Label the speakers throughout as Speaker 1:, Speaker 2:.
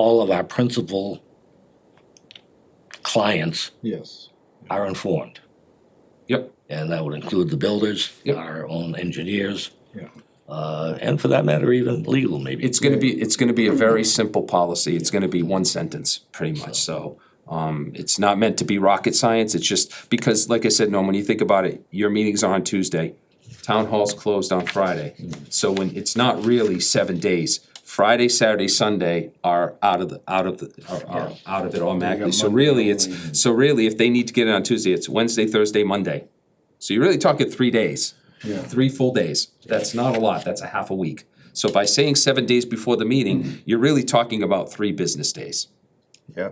Speaker 1: all of our principal clients
Speaker 2: Yes.
Speaker 1: are informed.
Speaker 3: Yep.
Speaker 1: And that would include the builders,
Speaker 3: Yep.
Speaker 1: our own engineers.
Speaker 2: Yeah.
Speaker 1: Uh, and for that matter, even legal maybe.
Speaker 3: It's gonna be, it's gonna be a very simple policy, it's gonna be one sentence, pretty much, so. Um, it's not meant to be rocket science, it's just, because like I said, Norm, when you think about it, your meetings are on Tuesday. Town hall's closed on Friday, so when, it's not really seven days, Friday, Saturday, Sunday are out of the, out of the, are, are out of it automatically. So really, it's, so really, if they need to get it on Tuesday, it's Wednesday, Thursday, Monday. So you're really talking three days
Speaker 2: Yeah.
Speaker 3: three full days. That's not a lot, that's a half a week. So by saying seven days before the meeting, you're really talking about three business days.
Speaker 2: Yeah.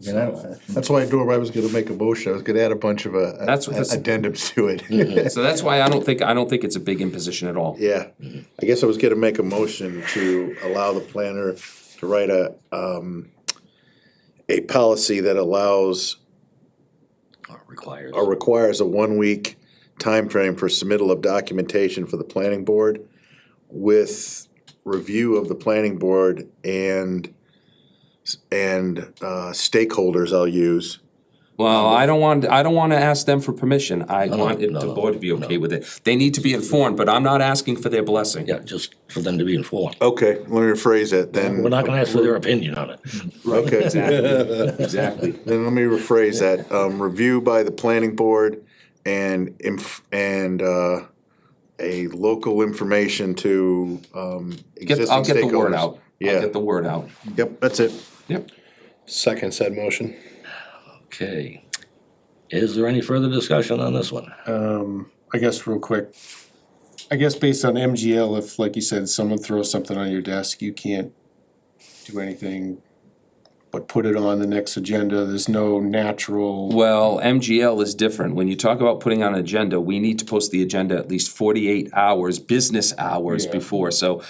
Speaker 2: You know, that's why I do, I was gonna make a motion, I was gonna add a bunch of uh,
Speaker 3: That's what this- Mm-hmm.
Speaker 2: addendums to it.
Speaker 3: So that's why I don't think, I don't think it's a big imposition at all.
Speaker 2: Yeah, I guess I was gonna make a motion to allow the planner to write a, um, a policy that allows
Speaker 1: Are required.
Speaker 2: or requires a one-week time frame for submittal of documentation for the planning board with review of the planning board and, and, uh, stakeholders I'll use.
Speaker 3: Well, I don't want, I don't wanna ask them for permission. I want it-
Speaker 1: no,
Speaker 3: the
Speaker 1: no,
Speaker 3: board to be okay with it. They need to be informed, but I'm not asking for their blessing.
Speaker 1: Yeah, just for them to be informed.
Speaker 2: Okay, let me rephrase it then.
Speaker 1: We're not gonna ask for their opinion on it.
Speaker 3: Mm-hmm.
Speaker 2: Okay,
Speaker 3: Exactly.
Speaker 2: then let me rephrase that. Um, review by the planning board and inf- and, uh, a local information to, um, existing
Speaker 3: Get,
Speaker 2: stakeholders.
Speaker 3: I'll get the word out. I'll
Speaker 2: Yeah,
Speaker 3: get the word out.
Speaker 2: yep, that's it.
Speaker 3: Yep.
Speaker 4: Second said motion.
Speaker 1: Okay. Is there any further discussion on this one?
Speaker 4: Um, I guess real quick, I guess based on MGL, if like you said, someone throws something on your desk, you can't do anything but put it on the next agenda. There's no natural,
Speaker 3: Well, MGL is different. When you talk about putting on an agenda, we need to post the agenda at least forty-eight hours, business hours
Speaker 4: Yeah.
Speaker 3: before, so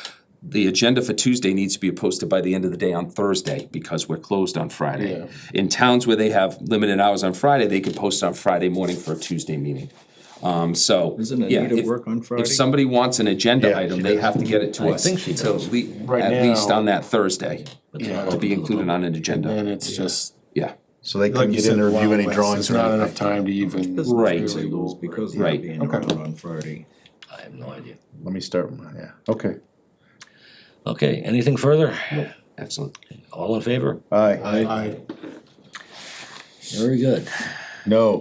Speaker 3: the agenda for Tuesday needs to be posted by the end of the day on Thursday, because we're closed on Friday. In towns where they have limited hours on Friday, they can post on Friday morning for a Tuesday meeting. Um, so,
Speaker 5: Doesn't
Speaker 3: yeah,
Speaker 5: Anita
Speaker 3: if,
Speaker 5: work on Friday?
Speaker 3: if somebody wants an agenda
Speaker 2: Yeah,
Speaker 3: item, they have to get it to
Speaker 1: I
Speaker 3: us
Speaker 1: think she
Speaker 3: to
Speaker 1: does.
Speaker 3: at lea-
Speaker 4: Right
Speaker 3: at least
Speaker 4: now-
Speaker 3: on that Thursday, to be included on an agenda.
Speaker 4: and it's just.
Speaker 3: Yeah,
Speaker 2: So they
Speaker 4: like
Speaker 2: couldn't
Speaker 4: you
Speaker 2: get in
Speaker 4: said,
Speaker 2: to
Speaker 4: Wild
Speaker 2: review any
Speaker 4: West.
Speaker 2: drawings
Speaker 4: There's
Speaker 2: or
Speaker 4: not
Speaker 2: anything.
Speaker 4: enough time to even.
Speaker 3: Right.
Speaker 5: They lose because
Speaker 3: Right.
Speaker 5: they're being
Speaker 4: Okay.
Speaker 5: around on Friday.
Speaker 1: I have no idea.
Speaker 2: Let me start, with my- yeah, okay.
Speaker 1: Okay, anything further?
Speaker 3: excellent.
Speaker 1: All in favor?
Speaker 2: Aye,
Speaker 4: I,
Speaker 1: Very good.
Speaker 2: no,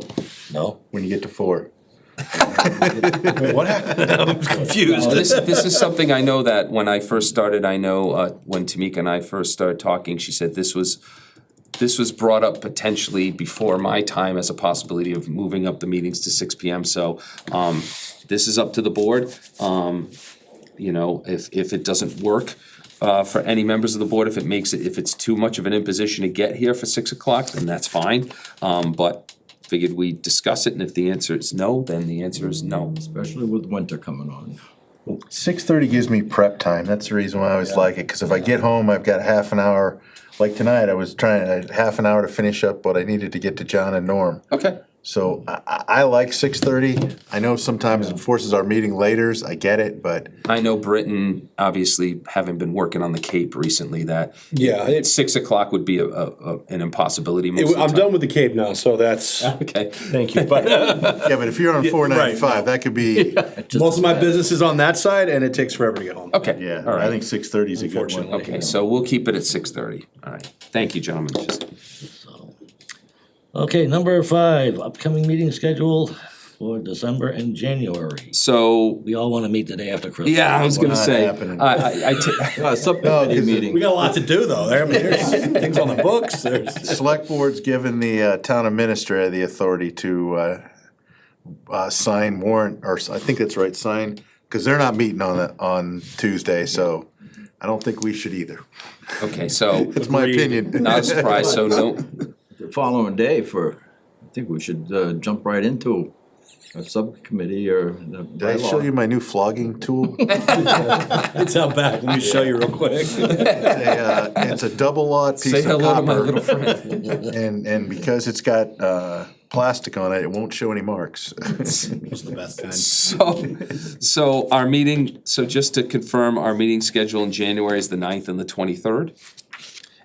Speaker 1: No?
Speaker 2: when you get to four.
Speaker 3: confused. This, this is something I know that when I first started, I know, uh, when Tamika and I first started talking, she said this was, this was brought up potentially before my time as a possibility of moving up the meetings to six P M, so, um, this is up to the board. Um, you know, if, if it doesn't work, uh, for any members of the board, if it makes it, if it's too much of an imposition to get here for six o'clock, then that's fine. Um, but figured we'd discuss it, and if the answer is no, then the answer is no.
Speaker 5: Especially with winter coming on.
Speaker 2: Six thirty gives me prep time, that's the reason why I always like it, cause if I get home, I've got half an hour. Like tonight, I was trying, I had half an hour to finish up what I needed to get to John and Norm.
Speaker 3: Okay.
Speaker 2: So I, I, I like six thirty, I know sometimes it forces our meeting later, I get it, but
Speaker 3: I know Britain, obviously, having been working on the Cape recently, that
Speaker 6: Yeah, it's,
Speaker 3: six o'clock would be a, a, a- an impossibility most of the
Speaker 6: I'm
Speaker 3: time.
Speaker 6: done with the Cape now, so that's,
Speaker 3: Okay,
Speaker 6: thank you. But
Speaker 2: Yeah, but if you're on four ninety-five, that could be,
Speaker 6: most of my business is on that side and it takes forever to get home.
Speaker 3: okay.
Speaker 2: yeah,
Speaker 3: All
Speaker 2: I
Speaker 3: right.
Speaker 2: think six thirty is a good one.
Speaker 3: Okay, so we'll keep it at six thirty. All right. Thank you, gentlemen. Just-
Speaker 1: Okay, number five, upcoming meeting schedule for December and January.
Speaker 3: So,
Speaker 1: We all wanna meet the day after Christmas.
Speaker 3: yeah, I was gonna
Speaker 2: Not
Speaker 3: say,
Speaker 2: happening.
Speaker 3: I, I, I ta-
Speaker 2: No, 'cause
Speaker 6: We got a lot to do though. There, I mean, there's things on the books, there's.
Speaker 2: the Select board's given the uh, town administrator the authority to uh, uh, sign warrant, or s- I think that's right, sign, because they're not meeting on it on Tuesday, so I don't think we should either.
Speaker 3: okay, so,
Speaker 2: That's my opinion.
Speaker 3: not a surprise, so no,
Speaker 5: The following day for, I think we should uh, jump right into a subcommittee or the
Speaker 2: Did I show you
Speaker 5: bylaw.
Speaker 2: my new flogging tool?
Speaker 6: It's out back. Let me show you real quick.
Speaker 2: They, uh, It's a double lot piece
Speaker 3: say
Speaker 2: of
Speaker 3: hello to my little
Speaker 2: copper,
Speaker 3: friend.
Speaker 2: and, and because it's got uh, plastic on it, it won't show any marks.
Speaker 6: It's the best kind.
Speaker 3: So, so our meeting, so just to confirm, our meeting schedule in January is the ninth and the twenty-third?